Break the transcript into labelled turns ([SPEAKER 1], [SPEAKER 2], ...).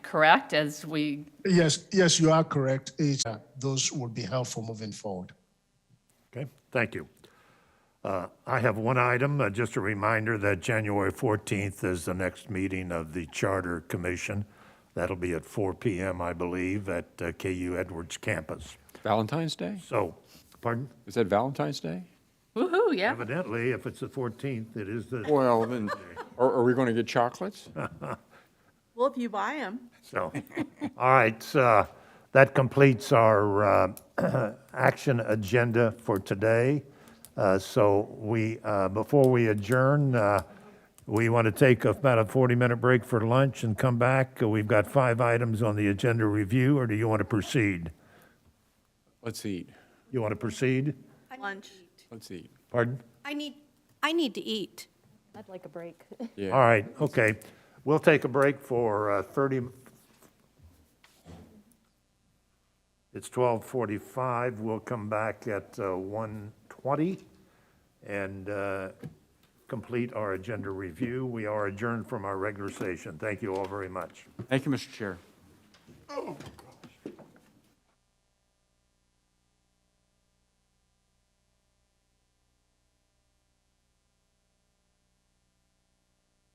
[SPEAKER 1] correct, as we,
[SPEAKER 2] Yes, yes, you are correct. It's, uh, Those would be helpful moving forward.
[SPEAKER 3] Okay, thank you. Uh, I have one item, uh, just a reminder that January 14th is the next meeting of the Charter Commission. That'll be at 4 PM, I believe, at uh, KU Edwards campus.
[SPEAKER 4] Valentine's Day?
[SPEAKER 3] So, pardon?
[SPEAKER 4] Is that Valentine's Day?
[SPEAKER 1] woo-hoo, yeah.
[SPEAKER 3] Evidently, if it's the 14th, it is the,
[SPEAKER 4] Well, then, are, are we going to get chocolates?
[SPEAKER 5] Well, if you buy them.
[SPEAKER 3] so. All right, so that completes our uh, action agenda for today. Uh, So we, uh, before we adjourn, uh, we want to take about a 40-minute break for lunch and come back. We've got five items on the agenda review, or do you want to proceed?
[SPEAKER 4] Let's eat.
[SPEAKER 3] You want to proceed?
[SPEAKER 5] Lunch.
[SPEAKER 4] Let's eat.
[SPEAKER 3] Pardon?
[SPEAKER 6] I need, I need to eat.
[SPEAKER 7] I'd like a break.
[SPEAKER 3] All right, okay. We'll take a break for uh, 30, it's 12:45. We'll come back at uh, 1:20 and uh, complete our agenda review. We are adjourned from our regular session. Thank you all very much.
[SPEAKER 4] Thank you, Mr. Chair.